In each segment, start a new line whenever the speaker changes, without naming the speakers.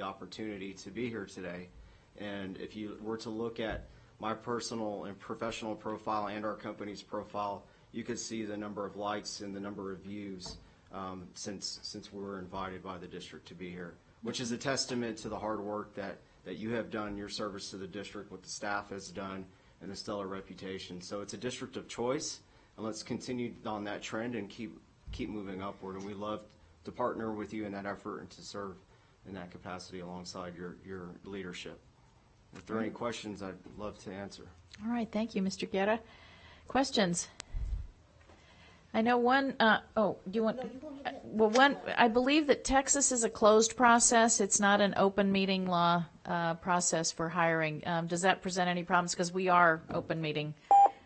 the opportunity to be here today. And if you were to look at my personal and professional profile and our company's profile, you could see the number of likes and the number of views um, since, since we were invited by the district to be here, which is a testament to the hard work that, that you have done, your service to the district, what the staff has done, and the stellar reputation. So it's a district of choice, and let's continue on that trend and keep, keep moving upward. And we love to partner with you in that effort and to serve in that capacity alongside your, your leadership. If there are any questions, I'd love to answer.
All right, thank you, Mr. Guerra. Questions? I know one, uh, oh, do you want, uh, well, one, I believe that Texas is a closed process. It's not an open meeting law uh, process for hiring. Um, Does that present any problems? Because we are open meeting.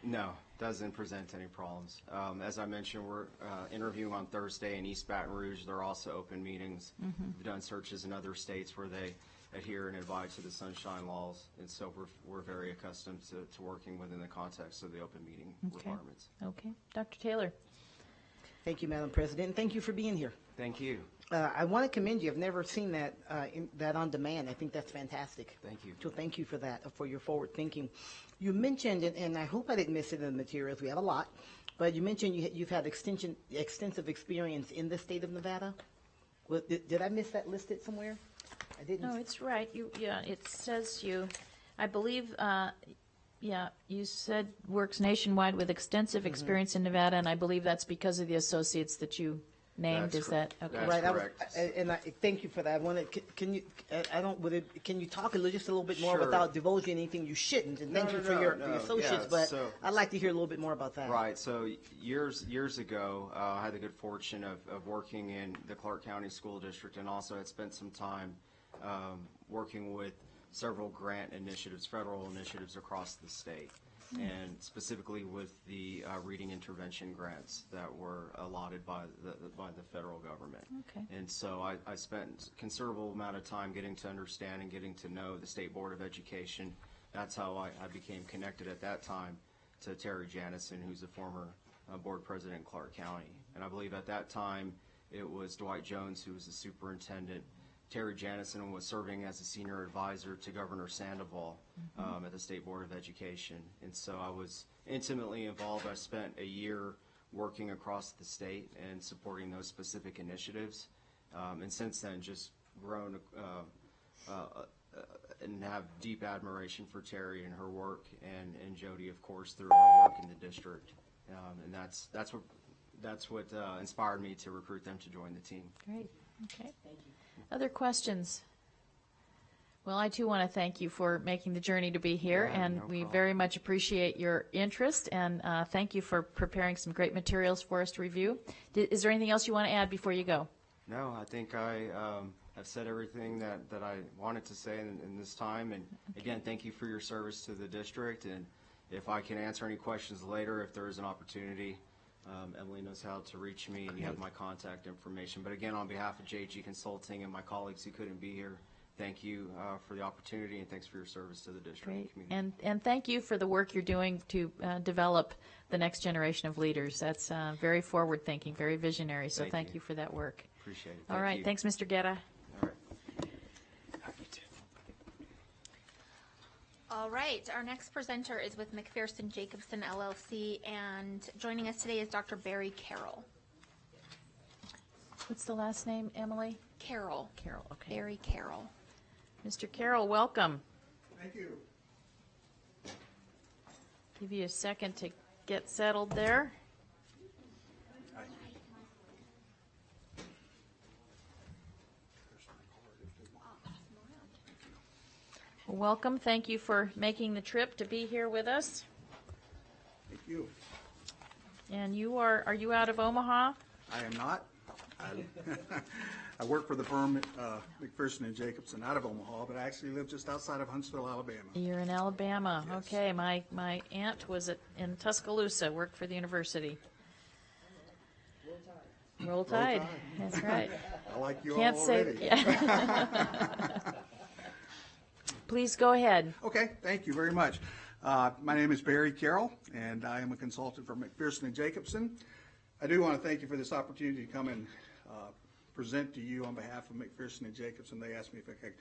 No, doesn't present any problems. Um, as I mentioned, we're, uh, interviewing on Thursday in East Baton Rouge. There are also open meetings. We've done searches in other states where they adhere and abide to the sunshine laws. And so we're, we're very accustomed to, to working within the context of the open meeting requirements.
Okay, Dr. Taylor?
Thank you, Madam President, and thank you for being here.
Thank you.
Uh, I want to commend you. I've never seen that uh, in, that on demand. I think that's fantastic.
Thank you.
So thank you for that, uh, for your forward thinking. You mentioned, and, and I hope I didn't miss it in the materials. We had a lot, but you mentioned you, you've had extension, extensive experience in the state of Nevada. Was, did, did I miss that listed somewhere? I didn't.
No, it's right. You, yeah, it says you, I believe, uh, yeah, you said works nationwide with extensive
Mm-hmm.
experience in Nevada, and I believe that's because of the associates that you named.
That's
Is that,
correct.
okay?
That's
Right, I was,
correct.
I- and I, thank you for that. I wanted, c- can you, uh, I- I don't, would it, can you talk a little, just a little bit more
Sure.
without divulging anything you shouldn't? And
No,
thank you
no,
for
no,
your,
no.
the associates,
Yeah,
but
so-
I'd like to hear a little bit more about that.
Right. So years years ago, uh, I had the good fortune of, of working in the Clark County School District, and also had spent some time um, working with several grant initiatives, federal initiatives across the state, and specifically with the uh, reading intervention grants that were allotted by the by the federal government.
Okay.
And so I, I spent considerable amount of time getting to understand and getting to know the State Board of Education. That's how I, I became connected at that time to Terry Janison, who's a former uh, board president in Clark County. And I believe at that time, it was Dwight Jones who was the superintendent. Terry Janison was serving as a senior advisor to Governor Sandoval um, at the State Board of Education. And so I was intimately involved. I spent a year working across the state and supporting those specific initiatives. Um, and since then, just grown uh, uh, and have deep admiration for Terry and her work and, and Jody, of course, through our work in the district. Um, and that's, that's what, that's what uh, inspired me to recruit them to join the team.
Great, okay. Other questions? Well, I too want to thank you for making the journey to be here,
Yeah,
and
no
we
problem.
very much appreciate your interest, and uh, thank you for preparing some great materials for us to review. Di- Is there anything else you want to add before you go?
No, I think I um, have said everything that, that I wanted to say in, in this time. And again, thank you for your service to the district. And if I can answer any questions later, if there is an opportunity, um, Emily knows how to reach me and you have my contact information. But again, on behalf of JG Consulting and my colleagues who couldn't be here, thank you uh, for the opportunity and thanks for your service to the district and
Great.
community.
And, and thank you for the work you're doing to uh, develop the next generation of leaders. That's uh, very forward-thinking, very visionary, so
Thank
thank
you.
you for that work.
Appreciate it.
All
Thank
right,
you.
thanks, Mr. Guerra.
All right.
All right, our next presenter is with McPherson Jacobson LLC, and joining us today is Dr. Barry Carroll.
What's the last name, Emily?
Carroll,
Carroll, okay.
Barry Carroll.
Mr. Carroll, welcome.
Thank you.
Give you a second to get settled there. Welcome, thank you for making the trip to be here with us.
Thank you.
And you are, are you out of Omaha?
I am not. I- I work for the firm uh, McPherson and Jacobson out of Omaha, but I actually live just outside of Huntsville, Alabama.
You're in Alabama.
Yes.
Okay, my, my aunt was at, in Tuscaloosa, worked for the university. Roll Tide.
Tide.
that's right.
I like you all
Can't say,
already.
yeah. Please go ahead.
Okay, thank you very much. Uh, My name is Barry Carroll, and I am a consultant for McPherson and Jacobson. I do want to thank you for this opportunity to come and uh, present to you on behalf of McPherson and Jacobson. They asked me if I could